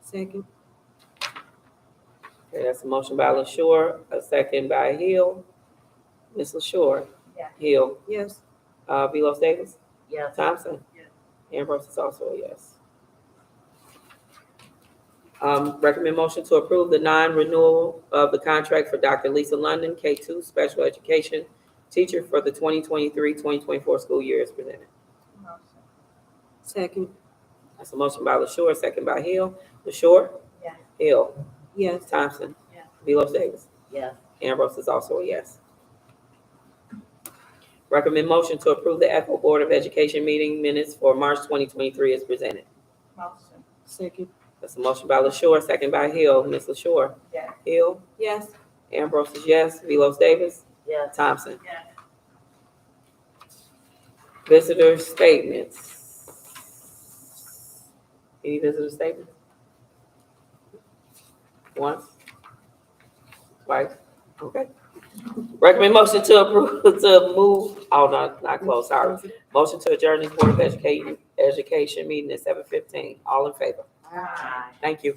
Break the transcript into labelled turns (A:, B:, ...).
A: Second.
B: Okay, that's a motion by LaShure, a second by Hill. Ms. LaShure?
C: Yes.
B: Hill?
A: Yes.
B: Uh, Velos Davis?
C: Yes.
B: Thompson?
C: Yes.
B: Ambrose is also a yes. Um, recommend motion to approve the non-renewal of the contract for Dr. Lisa London, K two special education teacher for the 2023-2024 school year is presented.
C: Motion.
A: Second.
B: That's a motion by LaShure, second by Hill. LaShure?
C: Yes.
B: Hill?
A: Yes.
B: Thompson?
C: Yes.
B: Velos Davis?
C: Yes.
B: Ambrose is also a yes. Recommend motion to approve the Echo Board of Education meeting minutes for March 2023 is presented.
C: Motion.
A: Second.
B: That's a motion by LaShure, second by Hill. Ms. LaShure?
C: Yes.
B: Hill?
A: Yes.
B: Ambrose is yes. Velos Davis?
C: Yes.
B: Thompson?
C: Yes.
B: Visitor statements. Any visitor statements? Once? Twice? Okay. Recommend motion to approve, to move, oh, no, not close, sorry. Motion to adjourn this Board of Education, Education meeting at seven fifteen. All in favor?
C: Aye.
B: Thank you.